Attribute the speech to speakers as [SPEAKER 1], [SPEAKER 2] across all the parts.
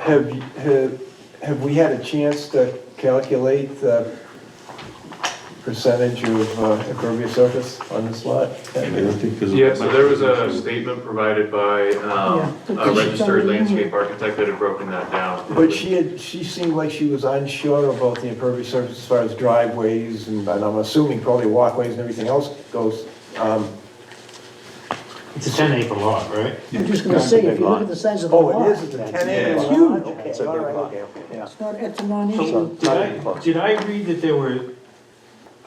[SPEAKER 1] Have, you- have, have we had a chance to calculate the percentage of uh, impervious surface on this lot?
[SPEAKER 2] Yeah, so there was a statement provided by um, a registered landscape architect that had broken that down.
[SPEAKER 1] But she had, she seemed like she was unsure about the impervious surface as far as driveways and, and I'm assuming probably walkways and everything else goes. Um,
[SPEAKER 3] It's a ten acre lot, right?
[SPEAKER 4] I'm just gonna say, if you look at the size of the
[SPEAKER 1] Oh,
[SPEAKER 4] lot.
[SPEAKER 1] it is, it's a ten acre
[SPEAKER 4] It's
[SPEAKER 1] lot.
[SPEAKER 4] huge.
[SPEAKER 1] Okay,
[SPEAKER 5] It's a
[SPEAKER 1] all
[SPEAKER 5] big
[SPEAKER 1] right,
[SPEAKER 5] lot.
[SPEAKER 1] okay, okay.
[SPEAKER 5] Yeah.
[SPEAKER 4] It's not, it's a non-issue.
[SPEAKER 3] Did
[SPEAKER 5] Not
[SPEAKER 3] I,
[SPEAKER 5] even close.
[SPEAKER 3] did I read that there were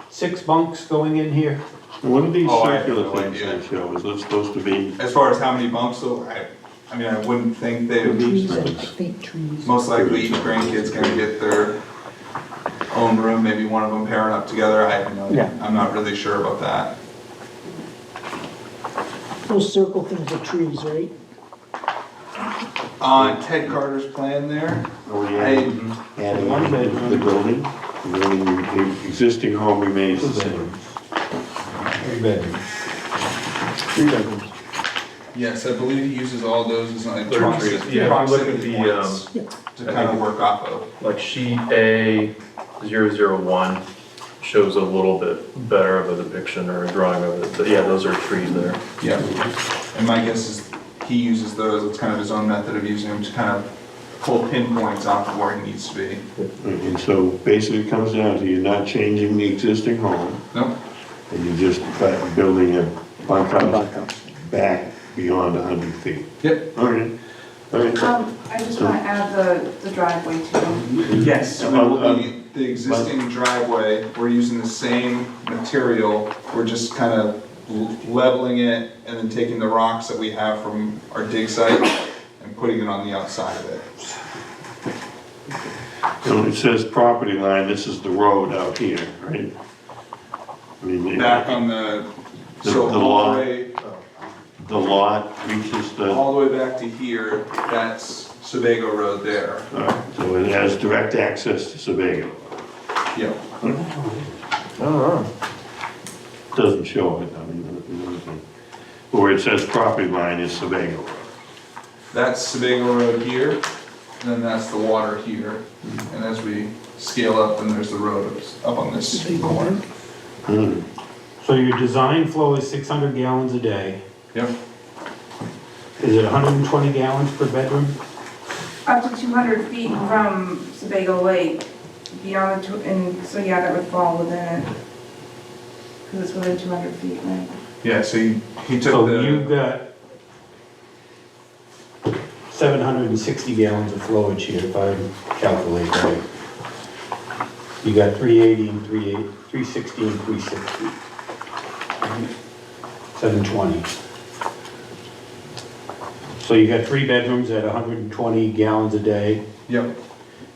[SPEAKER 3] six bunks going in here?
[SPEAKER 6] One of these
[SPEAKER 7] Oh, I have
[SPEAKER 6] circular
[SPEAKER 7] no
[SPEAKER 6] things
[SPEAKER 7] idea.
[SPEAKER 6] they show, is it supposed to be,
[SPEAKER 7] As far as how many bumps, so I, I mean, I wouldn't think they would be,
[SPEAKER 4] Trees, I think trees.
[SPEAKER 7] most likely each grandkid's gonna get their own room, maybe one of them pairing up together, I have no,
[SPEAKER 1] Yeah.
[SPEAKER 7] I'm not really sure about that.
[SPEAKER 4] Those circle things are trees, right?
[SPEAKER 7] On Uh, Ted Carter's plan there,
[SPEAKER 6] or the,
[SPEAKER 7] I,
[SPEAKER 6] and one bedroom, the building, the building, the existing home remains the same.
[SPEAKER 1] Three bedrooms.
[SPEAKER 7] yes, I believe he uses all those, it's like
[SPEAKER 2] They're trees.
[SPEAKER 7] proximity
[SPEAKER 2] Yeah, if you look at
[SPEAKER 7] proximity
[SPEAKER 2] the,
[SPEAKER 7] points
[SPEAKER 4] um,
[SPEAKER 7] to kind of work off of.
[SPEAKER 2] Like sheet A zero zero one shows a little bit better of a depiction or a drawing of it, but yeah, those are trees there.
[SPEAKER 7] Yeah, and my guess is he uses those, it's kind of his own method of using them to kind of pull pinpoints off of where he needs to be.
[SPEAKER 6] And so basically it comes down to you're not changing the existing home,
[SPEAKER 7] Nope,
[SPEAKER 6] and you're just bu- building a bunk house back beyond hundred feet.
[SPEAKER 7] yep.
[SPEAKER 6] All right, all right.
[SPEAKER 8] Um, I just want to add the, the driveway too.
[SPEAKER 7] Yes.
[SPEAKER 6] so we will be-
[SPEAKER 7] The existing driveway, we're using the same material, we're just kind of leveling it and then taking the rocks that we have from our dig site and putting it on the outside of it.
[SPEAKER 6] So it says property line, this is the road out here, right? I mean,
[SPEAKER 7] Back
[SPEAKER 6] the
[SPEAKER 7] on the,
[SPEAKER 6] The-
[SPEAKER 7] so
[SPEAKER 6] the
[SPEAKER 7] all
[SPEAKER 6] lawn.
[SPEAKER 7] the way,
[SPEAKER 6] lot reaches the.
[SPEAKER 7] all the way back to here, that's Sebago Road there.
[SPEAKER 6] All right, so it has direct access to Sebago.
[SPEAKER 7] Yep.
[SPEAKER 6] Doesn't show it, I mean, it doesn't- but where it says property line is Sebago Road.
[SPEAKER 7] That's Sebago Road here, and then that's the water here. And as we scale up, then there's the road up on this corner.
[SPEAKER 3] So your design flow is six hundred gallons a day.
[SPEAKER 7] Yep.
[SPEAKER 3] Is it hundred and twenty gallons per bedroom?
[SPEAKER 8] Up to 200 feet from Sebago Lake, beyond, tw- and so yeah, that would fall within it. Because it's within 200 feet, right?
[SPEAKER 7] Yeah, so he, he took
[SPEAKER 3] So you've
[SPEAKER 7] the,
[SPEAKER 3] Oh, got seven hundred and sixty gallons of flowage here, if I calculate right. You got three eighty and three eight, three sixty and three sixty. Seven twenty. So you got three bedrooms at hundred and twenty gallons a day.
[SPEAKER 7] yep,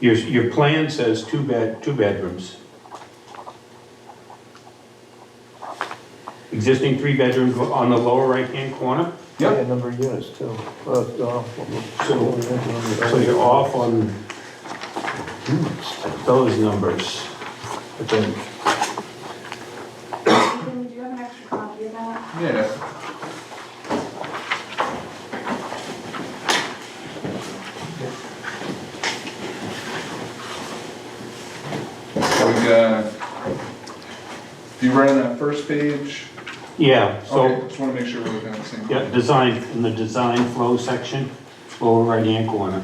[SPEAKER 3] Your, your plan says two bed, two bedrooms. Existing three bedrooms on the lower right-hand corner?
[SPEAKER 1] Yeah,
[SPEAKER 7] yep,
[SPEAKER 1] number of units too. Well, it's, uh,
[SPEAKER 3] So, so you're off on hmm, those numbers, I think.
[SPEAKER 8] Do you have an extra copy of that?
[SPEAKER 7] yeah. So we got, you right on that first page?
[SPEAKER 3] Yeah, so,
[SPEAKER 7] Okay, Just wanna make sure we're looking at the same.
[SPEAKER 3] yeah, design, in the design flow section, lower right-hand corner.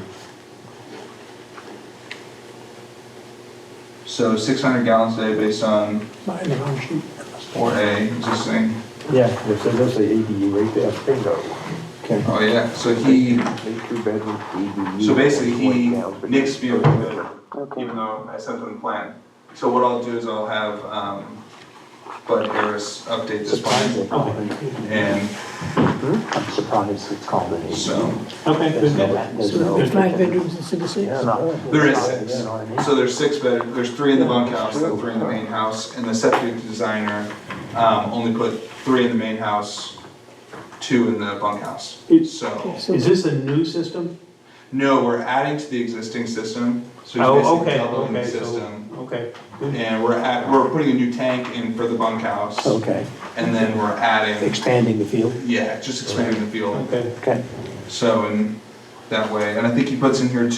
[SPEAKER 7] So six hundred gallons a day based on
[SPEAKER 4] Mine are on sheet.
[SPEAKER 7] four A existing.
[SPEAKER 1] Yeah, there's, there's the ADU right there. Bingo. Okay.
[SPEAKER 7] Oh, yeah, so he,
[SPEAKER 1] Three bedroom ADU.
[SPEAKER 7] so basically
[SPEAKER 1] 120
[SPEAKER 7] he
[SPEAKER 1] gallons per day.
[SPEAKER 7] nixed me a little bit, even though I sent him the plan. So what I'll do is I'll have, um, Bud Harris update this plan,
[SPEAKER 3] Okay,
[SPEAKER 7] and
[SPEAKER 5] I'm surprised it's called an eight.
[SPEAKER 7] so,
[SPEAKER 3] okay,
[SPEAKER 5] There's
[SPEAKER 3] good.
[SPEAKER 5] no- there's
[SPEAKER 4] So
[SPEAKER 5] no-
[SPEAKER 4] there's nine bedrooms instead of six.
[SPEAKER 5] Yeah, no.
[SPEAKER 7] there is six. So there's six bed, there's three in the bunkhouse, then three in the main house, and the septic designer, um, only put three in the main house, two in the bunkhouse, so.
[SPEAKER 4] So
[SPEAKER 3] Is this a new system?
[SPEAKER 7] No, we're adding to the existing system, so he's
[SPEAKER 3] Oh,
[SPEAKER 7] basically
[SPEAKER 3] okay,
[SPEAKER 7] doubling the
[SPEAKER 3] okay,
[SPEAKER 7] system.
[SPEAKER 3] so, okay, good.
[SPEAKER 7] And we're at, we're putting a new tank in for the bunkhouse,
[SPEAKER 5] Okay,
[SPEAKER 7] and then we're adding,
[SPEAKER 5] expanding the field,
[SPEAKER 7] yeah, just expanding the field.
[SPEAKER 3] okay.
[SPEAKER 5] okay.
[SPEAKER 7] So, and that way, and I think he puts in here too.